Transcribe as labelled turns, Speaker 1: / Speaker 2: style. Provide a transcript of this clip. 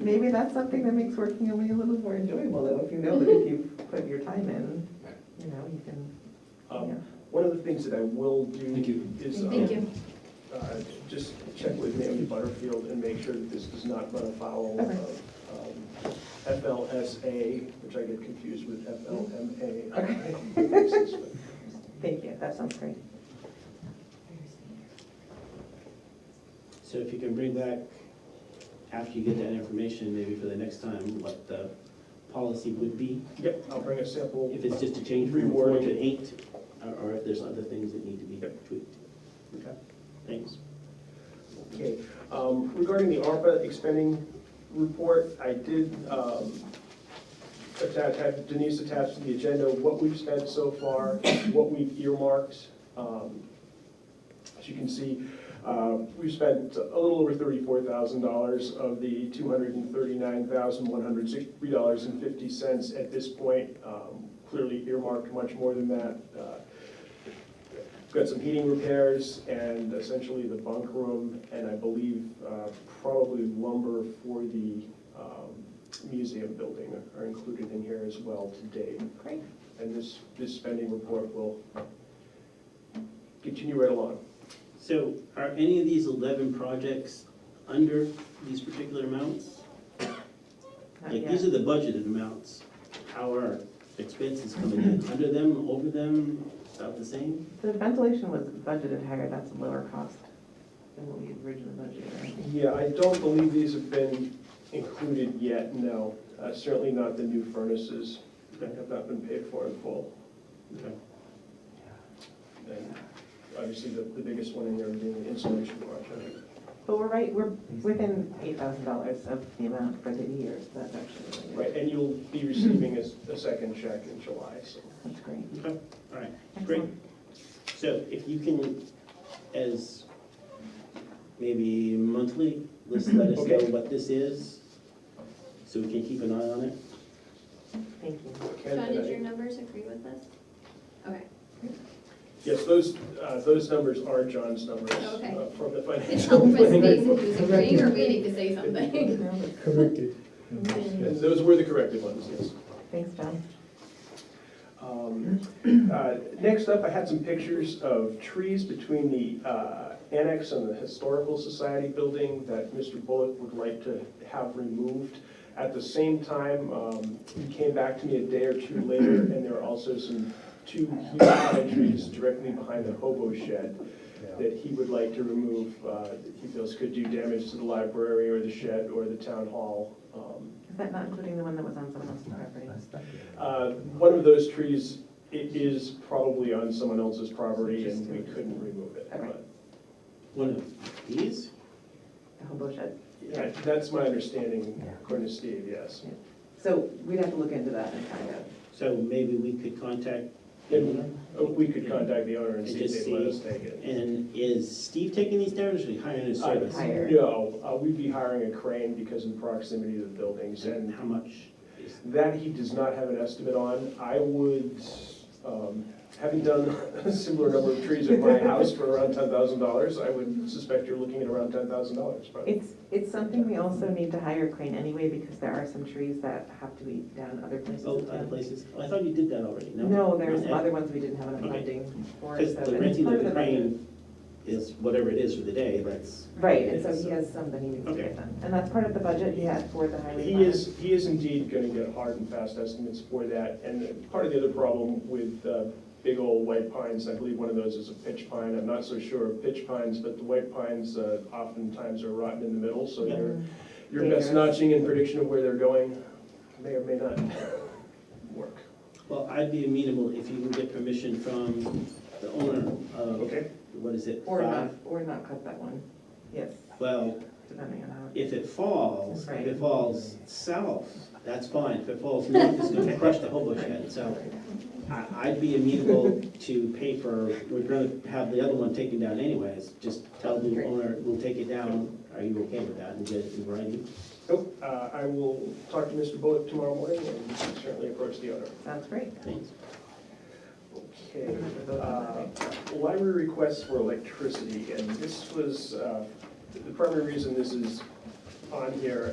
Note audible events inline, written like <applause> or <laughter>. Speaker 1: maybe that's something that makes working away a little more enjoyable, though, if you know that if you put your time in, you know, you can,
Speaker 2: Um,
Speaker 1: yeah.
Speaker 2: One of the things that I will
Speaker 3: Thank
Speaker 2: do
Speaker 3: you.
Speaker 2: is. um,
Speaker 4: Thank you.
Speaker 2: uh, Just check with Naomi Butterfield and make sure that this does not run afoul
Speaker 1: Okay.
Speaker 2: of um, FLSA, which I get confused with FLMA.
Speaker 1: Thank you, that sounds great.
Speaker 5: So if you can bring back, after you get that information, maybe for the next time, what the policy would be,
Speaker 2: <laughs> Yep, I'll bring a sample.
Speaker 5: if it's just a change from four to eight, or- or if there's other things that need to be tweaked.
Speaker 2: Okay.
Speaker 5: Thanks.
Speaker 2: Okay, um, regarding the ARPA expending report, I did, um, attach, have Denise attached to the agenda, what we've spent so far, what we've earmarked. Um, As you can see, uh, we've spent a little over thirty-four thousand dollars of the two hundred and thirty-nine thousand, one hundred sixty-three dollars and fifty cents at this point. Um, Clearly earmarked much more than that. Uh, Got some heating repairs and essentially the bunk room, and I believe uh, probably lumber for the um, museum building are included in here as well today.
Speaker 1: Great.
Speaker 2: And this, this spending report will continue right along.
Speaker 5: So are any of these eleven projects under these particular amounts?
Speaker 1: Not
Speaker 5: Like,
Speaker 1: yet.
Speaker 5: these are the budgeted amounts. How are expenses coming in? Under them, over them, about the same?
Speaker 1: The ventilation was budgeted higher, that's a lower cost than what we had originally budgeted, right?
Speaker 2: Yeah, I don't believe these have been included yet, no. Uh, Certainly not the new furnaces that have not been paid for in full.
Speaker 5: Okay.
Speaker 2: And obviously, the the biggest one in there being the insulation project.
Speaker 1: But we're right, we're within eight thousand dollars of the amount for the year, so that's actually really good.
Speaker 2: Right, and you'll be receiving a, a second check in July, so.
Speaker 1: That's great.
Speaker 5: Okay, all right. Great.
Speaker 1: Excellent.
Speaker 5: So if you can, as maybe monthly, just let us know
Speaker 2: Okay.
Speaker 5: what this is, so we can keep an eye on it.
Speaker 1: Thank you.
Speaker 2: Ken,
Speaker 4: Sean,
Speaker 2: and
Speaker 4: did
Speaker 2: I-
Speaker 4: your numbers agree with this? Okay.
Speaker 2: Yes, those, uh, those numbers are John's numbers.
Speaker 4: Okay.
Speaker 2: uh, From the
Speaker 4: It's
Speaker 2: financial.
Speaker 4: helpful for
Speaker 2: planning.
Speaker 4: Stacy who's agreeing or waiting to say something.
Speaker 3: Corrected.
Speaker 2: And those were the corrected ones, yes.
Speaker 1: Thanks, John.
Speaker 2: Um, uh, Next up, I had some pictures of trees between the uh, annex and the Historical Society building that Mr. Bullock would like to have removed. At the same time, um, he came back to me a day or two later, and there are also some two huge pine trees directly behind the hobo shed that he would like to remove, uh, that he feels could do damage to the library or the shed or the town hall. Um,
Speaker 1: Is that not including the one that was on someone else's property?
Speaker 2: uh, One of those trees i- is probably on someone else's property and we couldn't remove it. but-
Speaker 5: One of these?
Speaker 1: The hobo shed?
Speaker 2: Yeah, That's my understanding, according to Steve, yes.
Speaker 1: So we'd have to look into that and find out.
Speaker 5: So maybe we could contact
Speaker 2: And
Speaker 5: him.
Speaker 2: uh, we could contact the owner and see if they'd let us take it.
Speaker 5: And is Steve taking these down, or should we hire
Speaker 2: Uh,
Speaker 5: a service?
Speaker 1: Hire.
Speaker 2: No, uh, we'd be hiring a crane because in proximity to the buildings
Speaker 5: And
Speaker 2: and
Speaker 5: how much is,
Speaker 2: that he does not have an estimate on. I would, um, having done <laughs> a similar number of trees at my house for around ten thousand dollars, I would suspect you're looking at around ten thousand dollars, probably.
Speaker 1: It's, it's something we also need to hire a crane anyway, because there are some trees that have to be down other places
Speaker 5: oh,
Speaker 1: in
Speaker 5: other
Speaker 1: town.
Speaker 5: places? I thought you did that already, no?
Speaker 1: No, there are some
Speaker 5: Okay.
Speaker 1: other ones we didn't have enough
Speaker 5: Okay.
Speaker 1: funding for.
Speaker 5: Because
Speaker 1: so
Speaker 5: the
Speaker 1: it's
Speaker 5: renting
Speaker 1: part
Speaker 5: of the
Speaker 1: budget.
Speaker 5: crane is whatever it is for the day, that's,
Speaker 1: Right, and so he has some that he needs to get
Speaker 5: Okay.
Speaker 1: done. And that's part of the budget he had for the highway.
Speaker 2: He
Speaker 1: fund.
Speaker 2: is, he is indeed gonna get hard and fast estimates for that, and part of the other problem with uh, big old white pines, I believe one of those is a pitch pine, I'm not so sure of pitch pines, but the white pines uh, oftentimes are rotten in the middle, so
Speaker 5: Yeah.
Speaker 2: your,
Speaker 1: Mm.
Speaker 2: your best
Speaker 1: Dangerous.
Speaker 2: notching and prediction of where they're going may or may not <laughs> work.
Speaker 5: well, I'd be amenable if you can get permission from the owner of,
Speaker 2: Okay.
Speaker 5: what is it?
Speaker 1: Or not,
Speaker 5: five?
Speaker 1: or not cut that one, yes,
Speaker 5: Well,
Speaker 1: depending on how.
Speaker 5: if it falls, if
Speaker 1: Right.
Speaker 5: it falls south, that's fine, if it falls north, it's gonna crush the hobo shed, so I, I'd be amenable to pay for, we're gonna have the other one taken down anyways, just tell the
Speaker 1: Great.
Speaker 5: owner, we'll take it down, are you okay with that, and get it in writing?
Speaker 2: Nope, uh, I will talk to Mr. Bullock tomorrow morning and certainly approach the owner.
Speaker 1: Sounds great.
Speaker 5: Thanks.
Speaker 2: Okay, uh, library requests for electricity, and this was, uh, the primary reason this is on here